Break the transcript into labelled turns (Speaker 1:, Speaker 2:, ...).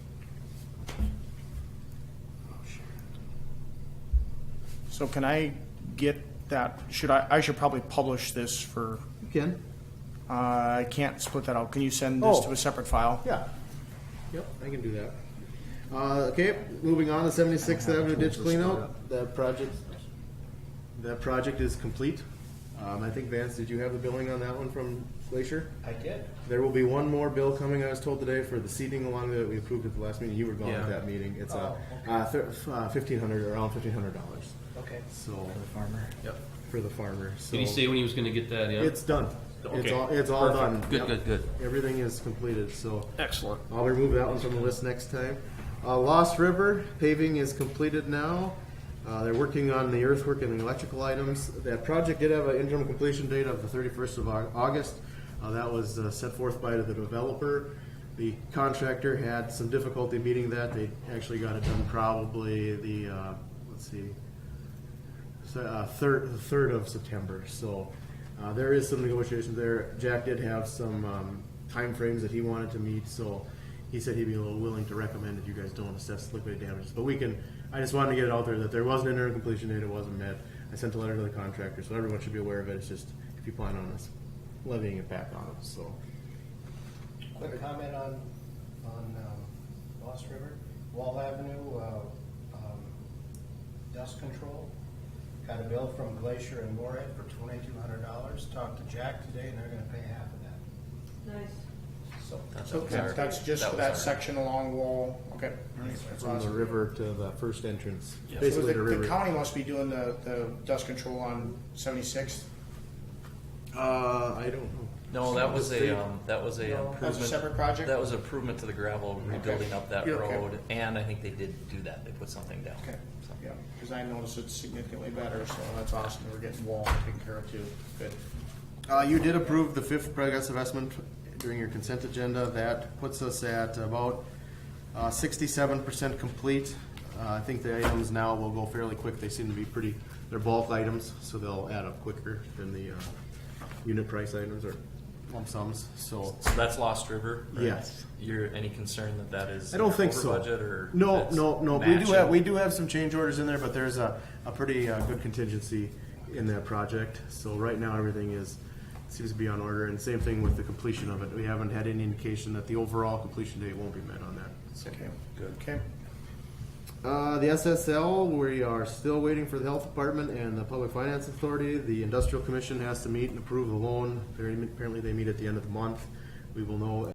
Speaker 1: So can I get that, should I, I should probably publish this for,
Speaker 2: Ken?
Speaker 1: uh, I can't split that out. Can you send this
Speaker 2: Oh.
Speaker 1: to a separate file?
Speaker 2: Yeah. Yep, I can do that. Uh, okay, moving on to Seventy-Sixth Avenue ditch cleanout. That project, that project is complete. Um, I think Vance, did you have the billing on that one from Glacier?
Speaker 3: I did.
Speaker 2: There will be one more bill coming, I was told today, for the seating along that we approved at the last meeting. You were gone at
Speaker 3: Yeah.
Speaker 2: that meeting. It's a,
Speaker 3: Oh, okay.
Speaker 2: uh, thir- uh, fifteen hundred, around fifteen hundred dollars.
Speaker 3: Okay.
Speaker 2: So,
Speaker 1: Farmer.
Speaker 3: Yep.
Speaker 2: for the farmer, so.
Speaker 4: Did he say when he was gonna get that in?
Speaker 2: It's done. It's
Speaker 4: Okay.
Speaker 2: all, it's all done.
Speaker 4: Good,
Speaker 2: Yep.
Speaker 4: good, good.
Speaker 2: Everything is completed, so.
Speaker 4: Excellent.
Speaker 2: I'll remove that one from the list next time. Uh, Lost River paving is completed now. Uh, they're working on the earthwork and the electrical items. That project did have an interim completion date of the thirty-first of Au- August. Uh, that was uh, set forth by the developer. The contractor had some difficulty meeting that. They actually got it done probably the, uh, let's see, so, uh, third, the third of September, so, uh, there is some negotiations there. Jack did have some, um, timeframes that he wanted to meet, so he said he'd be a little willing to recommend if you guys don't assess liquidated damages, but we can, I just wanted to get it out there that there was an interim completion date, it wasn't met. I sent a letter to the contractor, so everyone should be aware of it, it's just, if you plan on us levying it back on them, so.
Speaker 3: Quick comment on, on um, Lost River, Wall Avenue, uh, um, dust control. Got a bill from Glacier and Morehead for twenty-two hundred dollars. Talked to Jack today and they're gonna pay half of that.
Speaker 5: Nice.
Speaker 3: So,
Speaker 1: Okay, that's just for that section along wall, okay. That's
Speaker 2: From the
Speaker 1: awesome.
Speaker 2: river to the first entrance,
Speaker 1: So
Speaker 2: basically
Speaker 1: the-
Speaker 2: the river.
Speaker 1: The county must be doing the, the dust control on seventy-sixth.
Speaker 2: Uh, I don't know.
Speaker 6: No, that was a, um, that was a improvement.
Speaker 1: That's a separate project?
Speaker 6: That was improvement to the gravel, rebuilding up that
Speaker 1: Yeah, okay.
Speaker 6: road, and I think they did do that, they put something down.
Speaker 1: Okay,
Speaker 6: So,
Speaker 1: yeah, because I noticed it's significantly better, so that's awesome. We're getting wall taken care of too. Good.
Speaker 2: Uh, you did approve the fifth progressive estimate during your consent agenda. That puts us at about uh, sixty-seven percent complete. Uh, I think the items now will go fairly quick. They seem to be pretty, they're bulk items, so they'll add up quicker than the, uh, unit price items or lump sums, so.
Speaker 6: so that's Lost River? right?
Speaker 2: Yes.
Speaker 6: You're, any concern that that is?
Speaker 2: I don't think
Speaker 6: over
Speaker 2: so.
Speaker 6: budget or?
Speaker 2: No,
Speaker 6: that's
Speaker 2: no, no. We do
Speaker 6: matching?
Speaker 2: have, we do have some change orders in there, but there's a, a pretty uh, good contingency in that project. So right now, everything is, seems to be on order, and same thing with the completion of it. We haven't had any indication that the overall completion date won't be met on that.
Speaker 1: Okay, good. Okay.
Speaker 2: Uh, the SSL, we are still waiting for the health department and the public finance authority. The industrial commission has to meet and approve the loan. They're, apparently they meet at the end of the month. We will know